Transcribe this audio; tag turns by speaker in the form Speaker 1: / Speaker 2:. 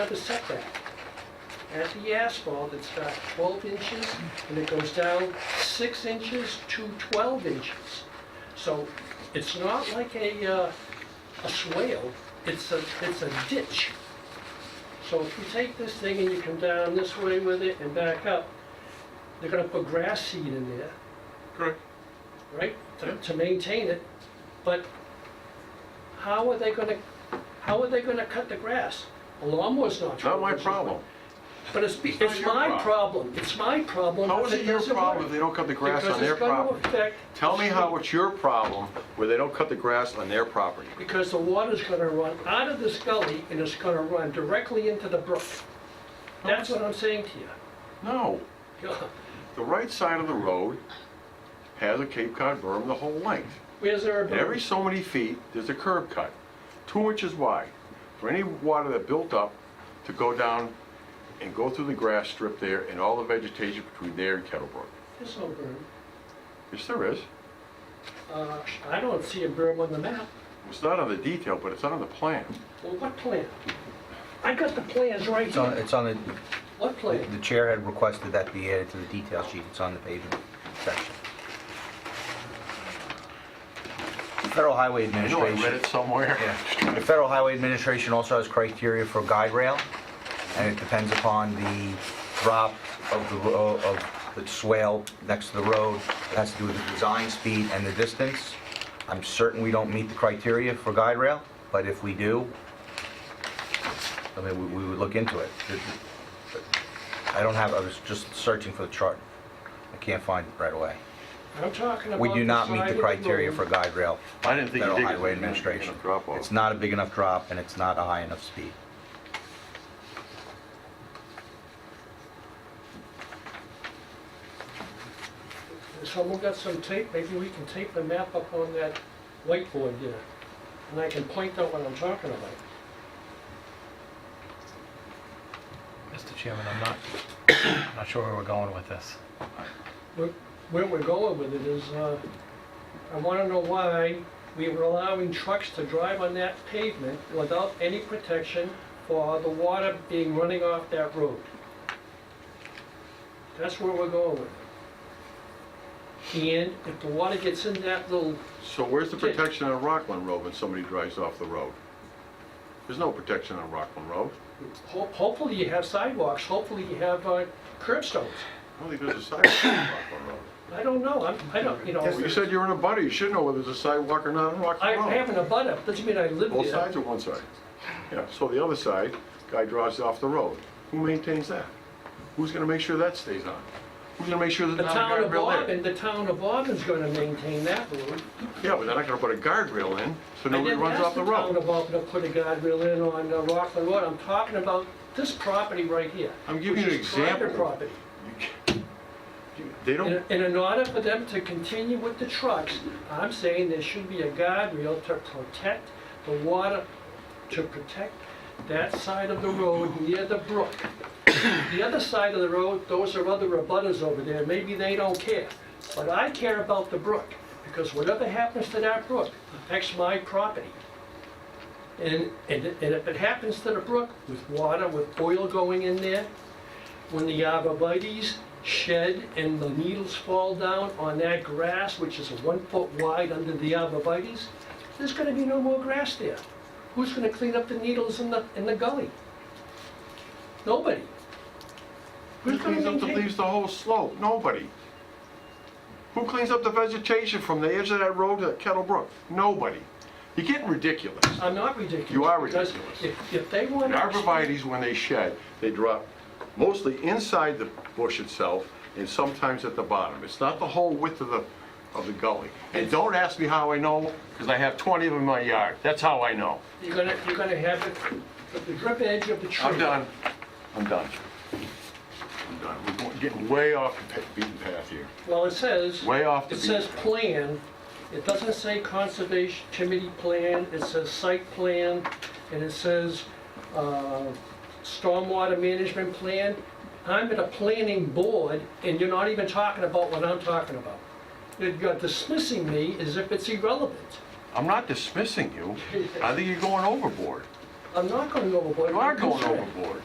Speaker 1: the setback. As the asphalt, it starts 12 inches and it goes down 6 inches to 12 inches. So it's not like a, uh, a swale, it's a, it's a ditch. So if you take this thing and you come down this way with it and back up, they're gonna put grass seed in there,
Speaker 2: Correct.
Speaker 1: right, to, to maintain it, but how are they gonna, how are they gonna cut the grass? A lawnmower's not.
Speaker 2: Not
Speaker 1: 12
Speaker 2: my
Speaker 1: inches.
Speaker 2: problem.
Speaker 1: But it's,
Speaker 2: not
Speaker 1: it's
Speaker 2: your
Speaker 1: my
Speaker 2: problem.
Speaker 1: problem, it's my problem.
Speaker 2: How
Speaker 1: if
Speaker 2: is it your
Speaker 1: doesn't
Speaker 2: problem if
Speaker 1: work.
Speaker 2: they don't cut the grass on their
Speaker 1: Because
Speaker 2: property?
Speaker 1: it's gonna affect. the
Speaker 2: Tell me how
Speaker 1: street.
Speaker 2: it's your problem where they don't cut the grass on their property.
Speaker 1: Because the water's gonna run out of this gully and it's gonna run directly into the brook. That's what I'm saying to
Speaker 2: No,
Speaker 1: you.
Speaker 2: the right side of the road has a Cape Cod berm the whole length.
Speaker 1: Where's there a
Speaker 2: And every
Speaker 1: brook?
Speaker 2: so many feet, there's a curb cut, two inches wide, for any water that built up to go down and go through the grass strip there and all the vegetation between there and Kettlebrook.
Speaker 1: There's no berm.
Speaker 2: Yes, there is.
Speaker 1: Uh, I don't see a berm on the map.
Speaker 2: It's not on the detail, but it's on the plan.
Speaker 1: Well, what plan? I got the plans right
Speaker 3: It's on,
Speaker 1: here.
Speaker 3: it's on, the
Speaker 1: What plan?
Speaker 3: the chair had requested that be added to the detail sheet, it's on the pavement section. The Federal Highway
Speaker 2: I know I read
Speaker 3: Administration,
Speaker 2: it somewhere.
Speaker 3: yeah, the Federal Highway Administration also has criteria for guide rail, and it depends upon the drop of the, ro- of the swale next to the road, it has to do with the design speed and the distance. I'm certain we don't meet the criteria for guide rail, but if we do, I mean, we- we would look into it. I don't have, I was just searching for the chart. I can't find it right away.
Speaker 1: I'm talking about.
Speaker 3: We do not meet
Speaker 1: side
Speaker 3: the
Speaker 1: of
Speaker 3: criteria
Speaker 1: road.
Speaker 3: for guide rail.
Speaker 2: I didn't think you
Speaker 3: Federal
Speaker 2: did.
Speaker 3: Highway Administration.
Speaker 2: Drop off.
Speaker 3: It's not a big enough drop, and it's not a high enough speed.
Speaker 1: Someone got some tape, maybe we can tape the map up on that whiteboard there, and I can point out what I'm talking about.
Speaker 4: Mr. Chairman, I'm not, I'm not sure where we're going with this.
Speaker 1: Where- Where we're going with it is, uh, I wanna know why we were allowing trucks to drive on that pavement without any protection for the water being running off that road. That's where we're going with it. And if the water gets in that little
Speaker 2: So where's the
Speaker 1: Okay.
Speaker 2: protection on Rockland Road when somebody drives off the road? There's no protection on Rockland Road.
Speaker 1: Ho- Hopefully you have sidewalks, hopefully you have uh, curb stones.
Speaker 2: I don't think there's a sidewalk on Rockland Road.
Speaker 1: I don't know, I'm, I don't, you
Speaker 2: Well, you
Speaker 1: know,
Speaker 2: said you're in a butter, you should know whether there's a sidewalk or not on
Speaker 1: I
Speaker 2: Rockland Road.
Speaker 1: have an abutter, doesn't mean I live
Speaker 2: Both
Speaker 1: there.
Speaker 2: sides or one side? Yeah, so the other side, guy drives off the road. Who maintains that? Who's gonna make sure that stays on? Who's gonna make sure
Speaker 1: The
Speaker 2: there's not
Speaker 1: town
Speaker 2: a
Speaker 1: of
Speaker 2: guardrail in?
Speaker 1: Auburn, the town of Auburn's gonna maintain that road.
Speaker 2: Yeah, but they're not gonna put a guardrail in, so
Speaker 1: I
Speaker 2: nobody
Speaker 1: didn't
Speaker 2: runs
Speaker 1: ask
Speaker 2: off
Speaker 1: the
Speaker 2: the
Speaker 1: town
Speaker 2: road.
Speaker 1: of Auburn to put a guardrail in on uh, Rockland Road, I'm talking about this property right here.
Speaker 2: I'm giving
Speaker 1: which
Speaker 2: you an
Speaker 1: is private
Speaker 2: example.
Speaker 1: property.
Speaker 2: You- They
Speaker 1: And
Speaker 2: don't,
Speaker 1: and in order for them to continue with the trucks, I'm saying there should be a guardrail to protect the water, to protect that side of the road near the brook. The other side of the road, those are other abutters over there, maybe they don't care. But I care about the brook, because whatever happens to that brook affects my property. And, and and if it happens to the brook, with water, with oil going in there, when the arborvitae's shed and the needles fall down on that grass, which is one foot wide under the arborvitae's, there's gonna be no more grass there. Who's gonna clean up the needles in the, in the gully? Nobody.
Speaker 2: who
Speaker 1: Who's gonna
Speaker 2: cleans up the
Speaker 1: maintain?
Speaker 2: leaves the whole slope? Nobody. Who cleans up the vegetation from the edge of that road to Kettle Brook? Nobody. You're getting ridiculous.
Speaker 1: I'm not ridiculous.
Speaker 2: You are
Speaker 1: because
Speaker 2: ridiculous.
Speaker 1: If, if they want.
Speaker 2: And arborvitae's, when they shed, they drop mostly inside the bush itself and sometimes at the bottom. It's not the whole width of the, of the gully. And don't ask me how I know, because I have 20 of them in my yard. That's how I know.
Speaker 1: You're gonna, you're gonna have it, at the drip edge of the tree.
Speaker 2: I'm done. I'm done. I'm done. We're going- getting way off the pa- beaten path here.
Speaker 1: Well, it says.
Speaker 2: Way off the
Speaker 1: It
Speaker 2: beaten
Speaker 1: says
Speaker 2: path.
Speaker 1: plan, it doesn't say conservation committee plan, it says site plan, and it says, uh, stormwater management plan. I'm at a planning board, and you're not even talking about what I'm talking about. You're dismissing me as if it's irrelevant.
Speaker 2: I'm not dismissing you. I think you're going overboard.
Speaker 1: I'm not going overboard.
Speaker 2: You are going
Speaker 1: Concern.
Speaker 2: overboard.